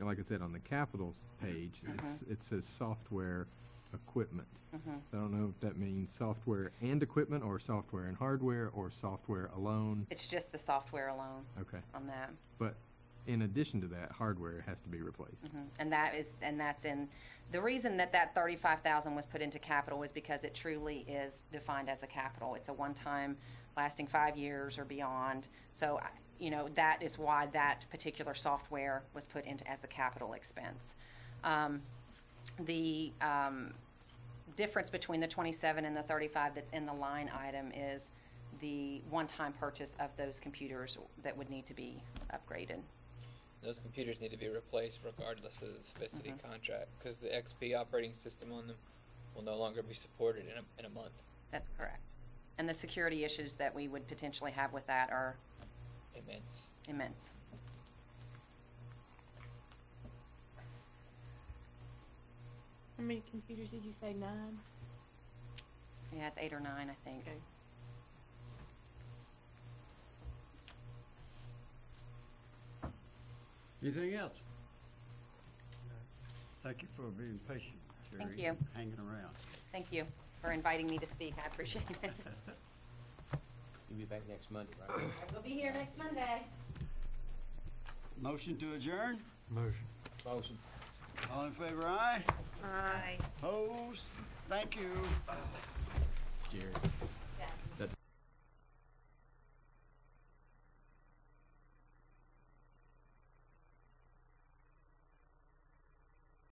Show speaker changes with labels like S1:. S1: like I said, on the capitals page, it's, it says software equipment. I don't know if that means software and equipment, or software and hardware, or software alone.
S2: It's just the software alone
S1: Okay,
S2: on that.
S1: but in addition to that, hardware has to be replaced.
S2: Mm-hmm. And that is, and that's in, the reason that that thirty-five thousand was put into capital is because it truly is defined as a capital. It's a one-time lasting five years or beyond. So, I- you know, that is why that particular software was put into as the capital expense. Um, the, um, difference between the twenty-seven and the thirty-five that's in the line item is the one-time purchase of those computers that would need to be upgraded.
S3: Those computers need to be replaced regardless of the specificity contract because the XP operating system on them will no longer be supported in a, in a month.
S2: That's correct. And the security issues that we would potentially have with that are
S3: Immense.
S2: immense.
S4: How many computers did you say? Nine?
S2: Yeah, it's eight or nine, I think.
S4: Okay.
S5: Anything else? Thank you for being patient, Jerry.
S2: Thank you.
S5: Hanging around.
S2: Thank you for inviting me to speak. I appreciate it.
S6: You'll be back next Monday, right?
S2: We'll be here next Monday.
S5: Motion to adjourn?
S6: Motion.
S5: All in favor, aye?
S2: Bye.
S5: Opposed? Thank you.
S6: Jerry.